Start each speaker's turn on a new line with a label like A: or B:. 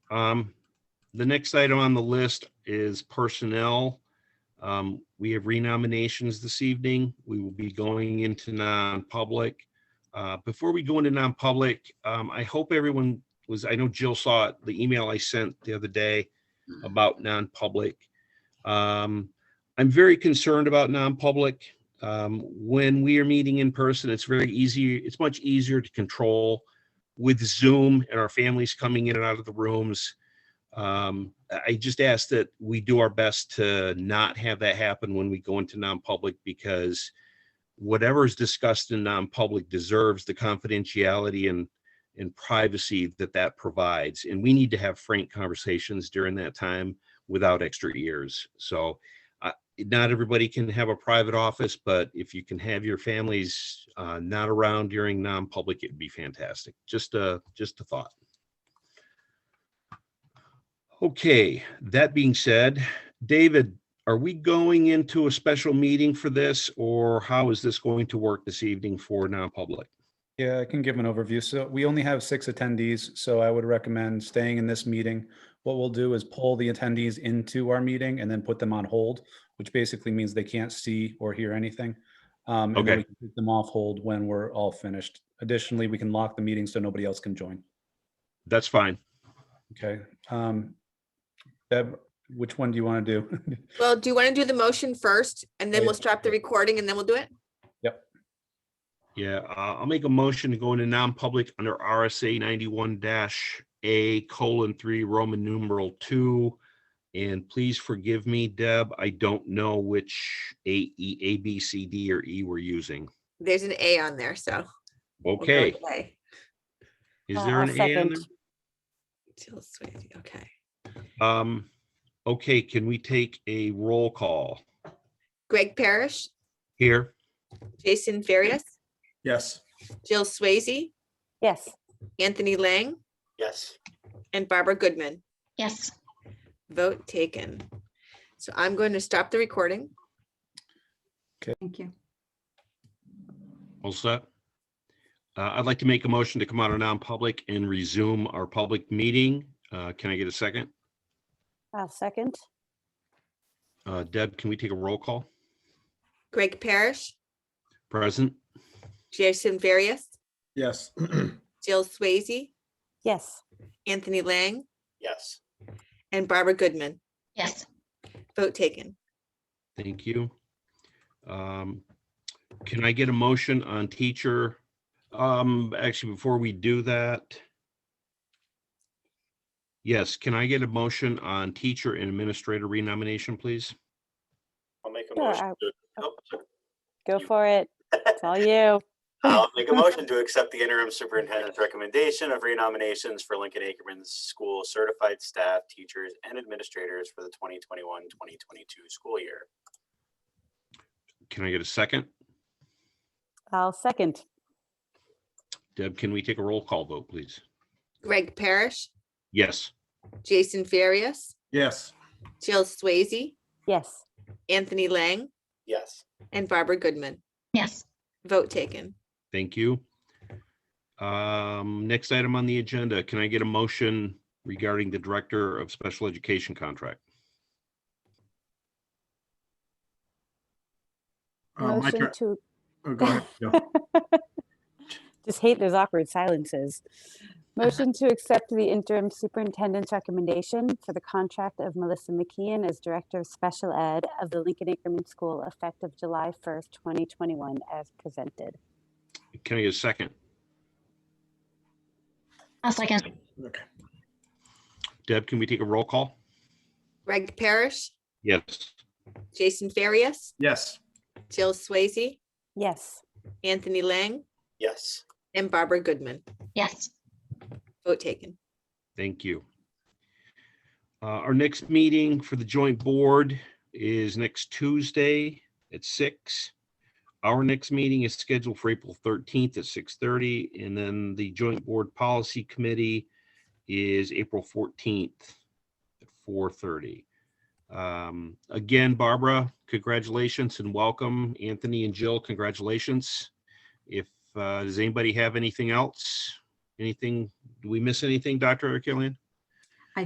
A: Um, The next item on the list is personnel. Um, We have renominations this evening. We will be going into non-public. Uh, Before we go into non-public, um, I hope everyone was, I know Jill saw it, the email I sent the other day about non-public. Um, I'm very concerned about non-public. Um, When we are meeting in person, it's very easy, it's much easier to control with Zoom and our families coming in and out of the rooms. Um, I I just ask that we do our best to not have that happen when we go into non-public because whatever is discussed in non-public deserves the confidentiality and and privacy that that provides. And we need to have frank conversations during that time without extra ears. So uh, not everybody can have a private office, but if you can have your families uh, not around during non-public, it'd be fantastic. Just a, just a thought. Okay, that being said, David, are we going into a special meeting for this or how is this going to work this evening for non-public?
B: Yeah, I can give an overview. So we only have six attendees, so I would recommend staying in this meeting. What we'll do is pull the attendees into our meeting and then put them on hold, which basically means they can't see or hear anything. Um, and then
A: Okay.
B: we can Put Them off hold when we're all finished. Additionally, we can lock the meeting so nobody else can join.
A: That's fine.
B: Okay. Um, Deb, which one do you want to do?
C: Well, do you want to do the motion first and then
B: yeah.
C: we'll stop the recording and then we'll do it?
A: Yeah, uh, I'll make a motion to go into non-public under RSA ninety-one dash A colon three, Roman numeral two. And please forgive me, Deb, I don't know which A, E, A, B, C, D, or E we're using.
C: There's an A on there, so. we'll go
A: Okay,
C: with A.
A: is
D: Uh,
A: there an
D: I'll
A: A on
D: second.
A: there?
C: Jill Swayze, Okay.
A: Um, okay, can we take a roll call
C: Greg Parrish,
A: here?
C: Jason Farias,
E: Yes.
C: Jill Swayze,
D: Yes.
C: Anthony Lang,
E: Yes.
C: and Barbara Goodman.
F: Yes.
C: Vote taken. So I'm going to stop the recording.
F: Thank you.
A: All set? Uh, I'd like to make a motion to come out of non-public and resume our public meeting. Uh, can I get a second?
D: I'll second.
A: Uh, Deb, can we take a roll call?
C: Greg Parrish,
A: Present?
C: Jason Farias,
E: Yes.
C: Jill Swayze,
D: Yes.
C: Anthony Lang,
E: Yes.
C: and Barbara Goodman.
F: Yes.
C: Vote taken.
A: Thank you. Um, Can I get a motion on teacher? Um, Actually, before we do that. Yes, can I get a motion on teacher and administrator renomination, please?
G: I'll make a
D: Sure,
G: motion
D: I-
G: to, oh, sorry.
D: Go for it. It's all you.
G: I'll make a motion to accept the interim superintendent's recommendation of renominations for Lincoln Ackerman School certified staff, teachers, and administrators for the 2021-2022 school year.
A: Can I get a second?
D: I'll second.
A: Deb, can we take a roll call vote, please?
C: Greg Parrish,
A: Yes,
C: Jason Farias,
E: Yes.
C: Jill Swayze,
D: Yes.
C: Anthony Lang,
G: Yes.
C: and Barbara Goodman.
F: Yes.
C: Vote taken.
A: thank you. Um, Next item on the agenda, can I get a motion regarding the director of special education contract?
E: Uh, my
D: Motion
E: turn.
D: to,
E: Oh, go ahead, Jill.
D: just hate those awkward silences. Motion to accept the interim superintendent's recommendation for the contract of Melissa McKeon as Director of Special Ed of the Lincoln Ackerman School effective July 1st, 2021 as presented.
A: Can I get a second?
F: I'll second.
E: Okay.
A: Deb, can we take a roll call?
C: Greg Parrish,
A: Yes.
C: Jason Farias,
E: Yes.
C: Jill Swayze,
D: Yes.
C: Anthony Lang,
G: Yes.
C: and Barbara Goodman.
F: Yes.
C: Vote taken.
A: Thank you. Uh, Our next meeting for the joint board is next Tuesday at six. Our next meeting is scheduled for April thirteenth at six thirty, and then the joint board policy committee is April fourteenth at four thirty. Um, Again, Barbara, congratulations and welcome. Anthony and Jill, congratulations. If, uh, does anybody have anything else? Anything do we miss anything, Dr. Killian?